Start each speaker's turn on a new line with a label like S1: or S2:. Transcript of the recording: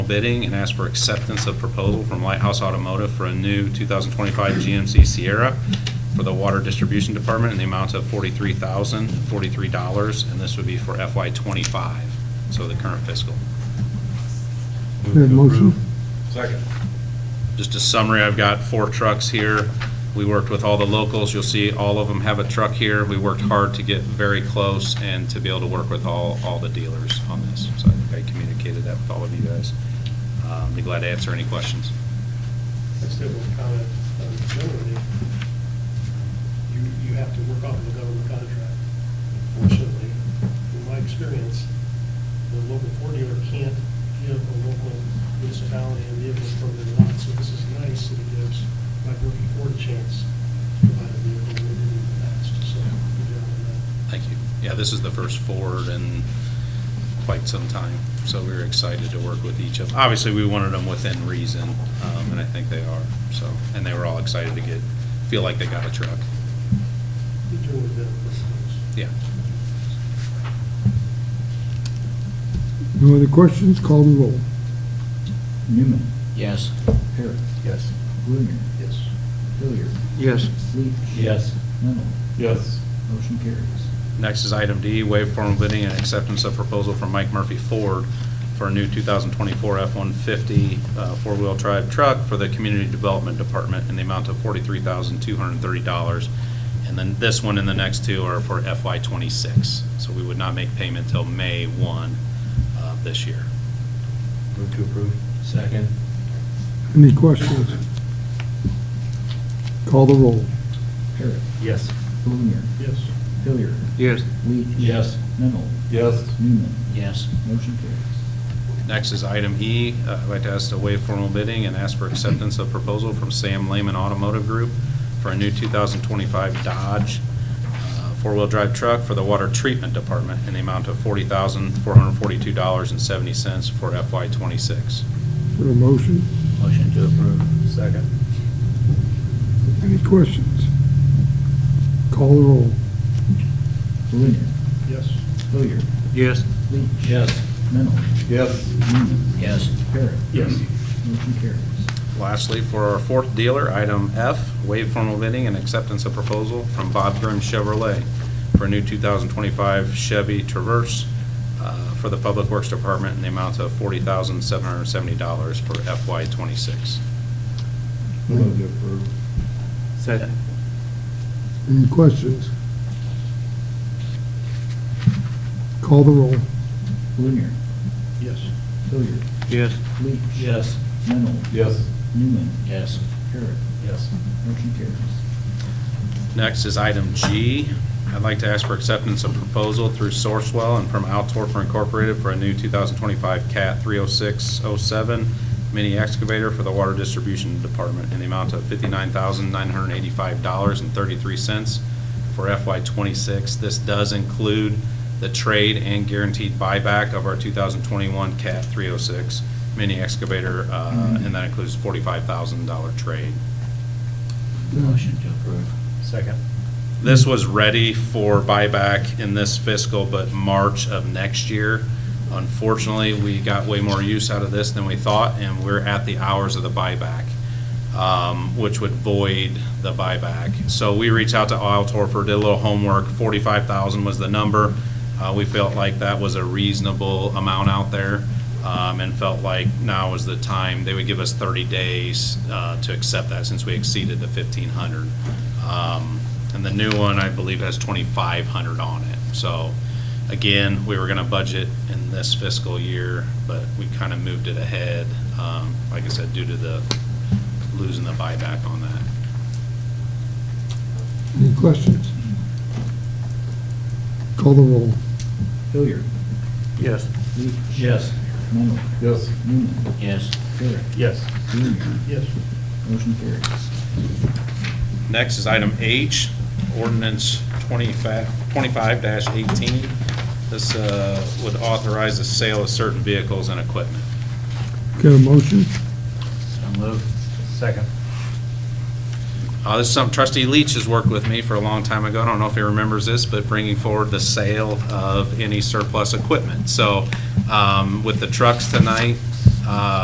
S1: bidding and ask for acceptance of proposal from Lighthouse Automotive for a new 2025 GMC Sierra for the Water Distribution Department in the amount of $43,043, and this would be for FY '25, so the current fiscal.
S2: Have a motion?
S3: Second.
S1: Just a summary, I've got four trucks here. We worked with all the locals. You'll see all of them have a truck here. We worked hard to get very close and to be able to work with all, all the dealers on this. So I think I communicated that with all of you guys. Um, Be glad to answer any questions.
S4: I still will comment on the government. You, you have to work off of a government contract. Fortunately, in my experience, the local four dealer can't give a local municipality a vehicle from their lot, so this is nice that it gives, like working for a chance to provide a vehicle that they didn't in the past, so uh, good job on that.
S1: Thank you. Yeah, this is the first Ford in quite some time, so we were excited to work with each of them. Obviously, we wanted them within reason, um, and I think they are, so. And they were all excited to get, feel like they got a truck.
S4: You're doing a bit of work.
S1: Yeah.
S2: No other questions? Call the roll.
S5: Newman,
S6: Yes.
S5: Parrot. Yes. Blunier,
S4: Yes.
S5: Hilliard,
S2: Yes.
S5: Leach.
S3: Yes.
S5: Mennel,
S3: Yes.
S5: motion carries.
S1: Next is item D, waive formal bidding and acceptance of proposal from Mike Murphy Ford for a new 2024 F-150 uh, four-wheel drive truck for the Community Development Department in the amount of $43,230. And then this one and the next two are for FY '26. So we would not make payment till May 1 of this year.
S3: Move to approve. Second.
S2: Any questions? Call the roll.
S5: Parrot,
S3: Yes.
S5: Blunier,
S4: Yes.
S5: Hilliard. Yes. Leach.
S3: Yes.
S5: Mennel,
S3: Yes.
S5: Newman,
S6: Yes.
S5: motion carries.
S1: Next is item E. Uh, I'd like to ask to waive formal bidding and ask for acceptance of proposal from Sam Lehman Automotive Group for a new 2025 Dodge uh, four-wheel drive truck for the Water Treatment Department in the amount of $40,442.70 for FY '26.
S2: For a motion?
S6: Motion to approve.
S3: Second.
S2: Any questions? Call the roll.
S5: Blunier,
S4: Yes.
S5: Hilliard.
S6: Yes.
S5: Leach.
S3: Yes.
S5: Mennel,
S3: Yes.
S5: Newman,
S6: Yes.
S5: Parrot.
S3: Yes.
S5: Motion carries.
S1: Lastly, for our fourth dealer, item F, waive formal bidding and acceptance of proposal from Bob Grimm Chevrolet for a new 2025 Chevy Traverse uh, for the Public Works Department in the amount of $40,770 for FY '26.
S3: Move to approve.
S6: Second.
S2: Any questions? Call the roll.
S5: Blunier,
S4: Yes.
S5: Hilliard,
S6: Yes.
S5: Leach.
S3: Yes.
S5: Mennel,
S3: Yes.
S5: Newman,
S6: Yes.
S5: Parrot.
S3: Yes.
S5: Motion carries.
S1: Next is item G. I'd like to ask for acceptance of proposal through Sourcewell and from Altorfer Incorporated for a new 2025 CAT 30607 mini excavator for the Water Distribution Department in the amount of $59,985.33 for FY '26. This does include the trade and guaranteed buyback of our 2021 CAT 306 mini excavator, uh, and that includes $45,000 trade.
S6: Motion to approve.
S3: Second.
S1: This was ready for buyback in this fiscal, but March of next year. Unfortunately, we got way more use out of this than we thought, and we're at the hours of the buyback, um, which would void the buyback. So we reached out to Isle Torfer, did a little homework, forty-five thousand was the number. Uh, we felt like that was a reasonable amount out there, um, and felt like now was the time. They would give us thirty days, uh, to accept that since we exceeded the fifteen hundred. Um, and the new one, I believe, has twenty-five hundred on it. So, again, we were gonna budget in this fiscal year, but we kind of moved it ahead, um, like I said, due to the, losing the buyback on that.
S2: Any questions? Call the roll.
S5: Hilliard,
S6: Yes.
S5: Leach.
S3: Yes.
S5: Mennel,
S3: Yes.
S5: Newman,
S6: Yes.
S5: Parrot.
S3: Yes.
S5: Blunier,
S4: Yes.
S5: motion carries.
S1: Next is item H, ordinance 25 25-18. This uh, would authorize the sale of certain vehicles and equipment.
S2: Get a motion?
S6: So moved.
S3: Second.
S1: Uh, This is something trustee Leach has worked with me for a long time ago. I don't know if he remembers this, but bringing forward the sale of any surplus equipment. So um, with the trucks tonight, uh,